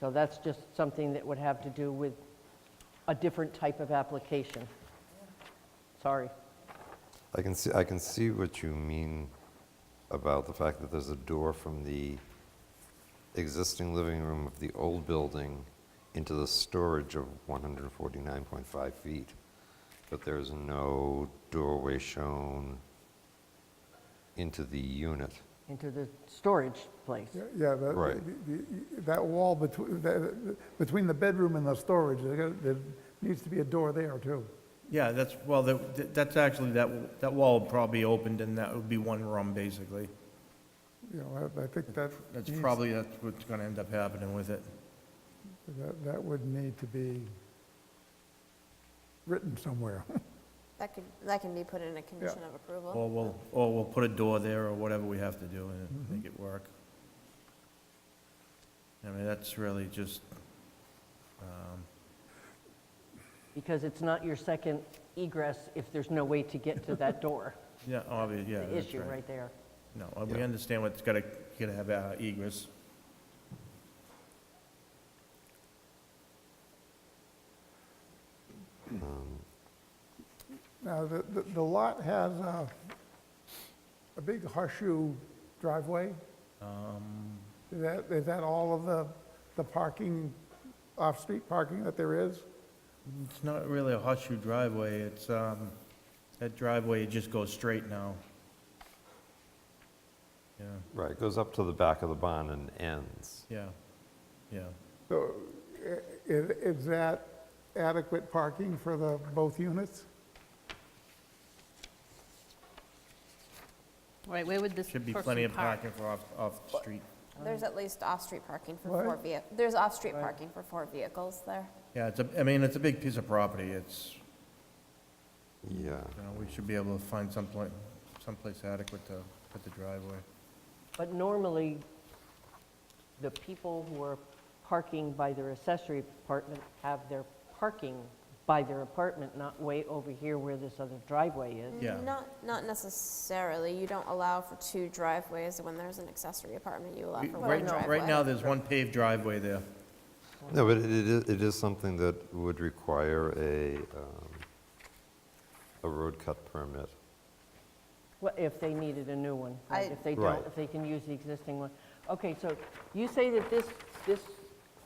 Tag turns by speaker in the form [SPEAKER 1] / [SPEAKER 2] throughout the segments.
[SPEAKER 1] So that's just something that would have to do with a different type of application. Sorry.
[SPEAKER 2] I can see, I can see what you mean about the fact that there's a door from the existing living room of the old building into the storage of 149.5 feet, but there's no doorway shown into the unit.
[SPEAKER 1] into the storage place.
[SPEAKER 3] Yeah, Yeah, the-
[SPEAKER 2] Right.
[SPEAKER 3] the- the- that wall between, between the bedroom and the storage, there gotta- there needs to be a door there, too.
[SPEAKER 4] Yeah, that's, well, that, that's actually, that, that wall would probably be opened and that would be one room, basically.
[SPEAKER 3] You know, I I think that.
[SPEAKER 4] That's
[SPEAKER 3] needs-
[SPEAKER 4] probably, that's what's gonna end up happening with it.
[SPEAKER 3] That that would need to be written somewhere.
[SPEAKER 5] That could, that can be put in a condition of approval.
[SPEAKER 4] Or we'll, or we'll put a door there or whatever we have to do and
[SPEAKER 1] Mm-hmm.
[SPEAKER 4] make it work. I mean, that's really just, um,
[SPEAKER 1] Because it's not your second egress if there's no way to get to that door.
[SPEAKER 4] yeah, obvious, yeah,
[SPEAKER 1] The
[SPEAKER 4] that's
[SPEAKER 1] issue right there.
[SPEAKER 4] No, uh, we understand what's gotta, you gotta have uh, egress.
[SPEAKER 3] Now, the, the- the lot has a, a big horseshoe driveway.
[SPEAKER 4] Um,
[SPEAKER 3] Is that, is that all of the, the parking, off-street parking that there is?
[SPEAKER 4] It's not really a horseshoe driveway, it's, um, that driveway, it just goes straight now. Yeah,
[SPEAKER 2] Right, it goes up to the back of the barn and ends.
[SPEAKER 4] yeah, yeah.
[SPEAKER 3] So i- i- is that adequate parking for the, both units?
[SPEAKER 6] Right, where would this
[SPEAKER 4] Should
[SPEAKER 6] person
[SPEAKER 4] be
[SPEAKER 6] park?
[SPEAKER 4] plenty of parking for off, off the street.
[SPEAKER 5] There's at least off-street parking for
[SPEAKER 3] um, What?
[SPEAKER 5] four vehicles. there's off-street parking for four vehicles there.
[SPEAKER 4] Yeah, it's a, I mean, it's a big piece of property, it's,
[SPEAKER 2] Yeah.
[SPEAKER 4] you know, we should be able to find someplace, someplace adequate to put the driveway.
[SPEAKER 1] But normally, the people who are parking by their accessory apartment have their parking by their apartment, not way over here where this other driveway is.
[SPEAKER 4] Yeah.
[SPEAKER 5] Not, not necessarily, you don't allow for two driveways when there's an accessory apartment, you allow
[SPEAKER 4] We-
[SPEAKER 5] for one
[SPEAKER 4] Right now, right now,
[SPEAKER 5] driveway.
[SPEAKER 4] there's one paved driveway there.
[SPEAKER 2] No, but it is, it is something that would require a, um, a road cut permit.
[SPEAKER 1] Well, If they needed a new one, right?
[SPEAKER 5] I-
[SPEAKER 1] if they
[SPEAKER 2] Right.
[SPEAKER 1] don't, if they can use the existing one. Okay, so you say that this, this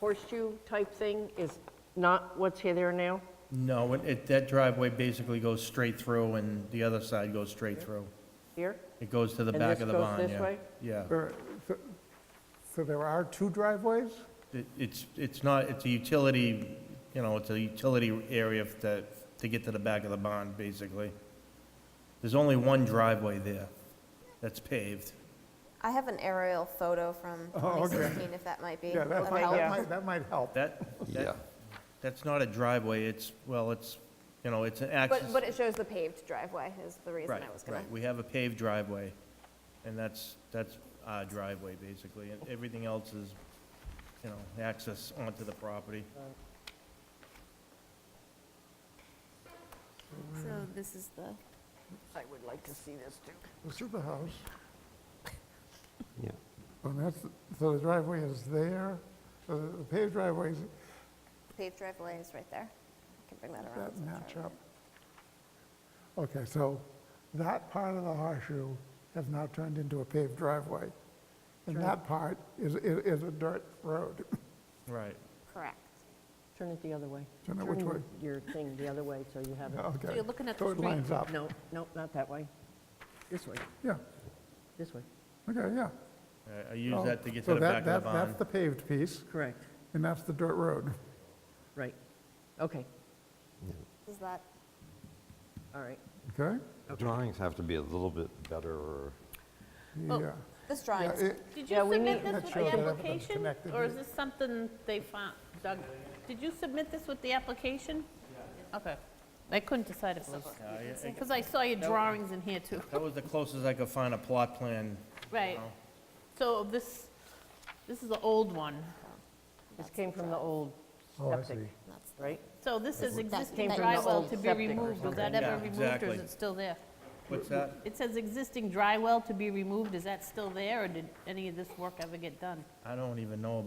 [SPEAKER 1] horseshoe type thing is not what's here there now?
[SPEAKER 4] No, it- it, that driveway basically goes straight through and the other side goes straight through.
[SPEAKER 1] Here?
[SPEAKER 4] It goes to the
[SPEAKER 1] And
[SPEAKER 4] back
[SPEAKER 1] this
[SPEAKER 4] of the
[SPEAKER 1] goes
[SPEAKER 4] barn, yeah.
[SPEAKER 1] this way?
[SPEAKER 4] Yeah.
[SPEAKER 3] Or- So so there are two driveways?
[SPEAKER 4] It- It's, it's not, it's a utility, you know, it's a utility area f- to, to get to the back of the barn, basically. There's only one driveway there that's paved.
[SPEAKER 5] I have an aerial photo from
[SPEAKER 3] Oh, okay.
[SPEAKER 5] 2016, if that might be
[SPEAKER 3] Yeah,
[SPEAKER 5] of
[SPEAKER 3] that might,
[SPEAKER 5] help.
[SPEAKER 3] that might, that might help.
[SPEAKER 4] That,
[SPEAKER 2] Yeah.
[SPEAKER 4] that, that's not a driveway, it's, well, it's, you know, it's an
[SPEAKER 5] But,
[SPEAKER 4] access.
[SPEAKER 5] but it shows the paved driveway is the reason
[SPEAKER 4] Right,
[SPEAKER 5] I was gonna.
[SPEAKER 4] right, we have a paved driveway, and that's, that's our driveway, basically, and everything else is, you know, access onto the property.
[SPEAKER 6] So this is the,
[SPEAKER 1] I would like to see this too.
[SPEAKER 3] This is the house,
[SPEAKER 2] Yeah.
[SPEAKER 3] and that's, so the driveway is there, so the paved driveways
[SPEAKER 5] Paved driveway is right there. I can bring that around.
[SPEAKER 3] that
[SPEAKER 5] so I'll
[SPEAKER 3] match
[SPEAKER 5] try
[SPEAKER 3] up. Okay, so that part of the horseshoe has now turned into a paved driveway, and that part is, is is a dirt road.
[SPEAKER 4] Right.
[SPEAKER 5] it. Correct.
[SPEAKER 1] Turn it the other way.
[SPEAKER 3] Turn it which
[SPEAKER 1] your-
[SPEAKER 3] way?
[SPEAKER 1] Your thing the other way, so you have it.
[SPEAKER 3] Okay.
[SPEAKER 6] so you're looking at
[SPEAKER 3] So
[SPEAKER 6] the
[SPEAKER 3] it
[SPEAKER 6] street.
[SPEAKER 3] lines up.
[SPEAKER 1] No, no, not that way. This way,
[SPEAKER 3] Yeah,
[SPEAKER 1] this way.
[SPEAKER 3] okay, yeah.
[SPEAKER 4] I- I use
[SPEAKER 3] Oh,
[SPEAKER 4] that to get
[SPEAKER 3] so
[SPEAKER 4] to the
[SPEAKER 3] that-
[SPEAKER 4] back of
[SPEAKER 3] that-
[SPEAKER 4] the barn.
[SPEAKER 3] That's the paved piece,
[SPEAKER 1] Correct,
[SPEAKER 3] and that's the dirt road.
[SPEAKER 1] right. Okay,
[SPEAKER 5] Is that,
[SPEAKER 1] all right.
[SPEAKER 3] Okay?
[SPEAKER 2] Drawings have to be a little bit better or
[SPEAKER 3] Yeah.
[SPEAKER 5] this
[SPEAKER 3] Yeah,
[SPEAKER 5] drawing is
[SPEAKER 3] it-
[SPEAKER 6] Did
[SPEAKER 1] Yeah,
[SPEAKER 6] you
[SPEAKER 1] we need-
[SPEAKER 6] submit this
[SPEAKER 3] Not
[SPEAKER 6] with
[SPEAKER 3] sure
[SPEAKER 6] the
[SPEAKER 3] that everything's
[SPEAKER 6] application?
[SPEAKER 3] connected
[SPEAKER 6] Or is
[SPEAKER 3] here.
[SPEAKER 6] this something they found, Doug, did you submit this with the application? Okay. I couldn't decide if it was, because I saw your drawings in here too.
[SPEAKER 4] That was the closest I could find a plot plan.
[SPEAKER 6] Right.
[SPEAKER 4] know.
[SPEAKER 6] So this, this is the old one.
[SPEAKER 1] This came from the old
[SPEAKER 3] Oh, I
[SPEAKER 1] septic,
[SPEAKER 3] see.
[SPEAKER 5] That's
[SPEAKER 1] right?
[SPEAKER 6] So this is
[SPEAKER 1] came
[SPEAKER 5] that
[SPEAKER 6] existing
[SPEAKER 1] from the
[SPEAKER 6] drywall
[SPEAKER 1] old
[SPEAKER 6] to be
[SPEAKER 1] septic or
[SPEAKER 6] removed. Was
[SPEAKER 1] something.
[SPEAKER 6] that ever
[SPEAKER 4] Yeah,
[SPEAKER 6] removed or
[SPEAKER 4] exactly.
[SPEAKER 6] is it still there?
[SPEAKER 4] What's that?
[SPEAKER 6] It says existing dry well to be removed, is that still there, or did any of this work ever get done?
[SPEAKER 4] I don't even know about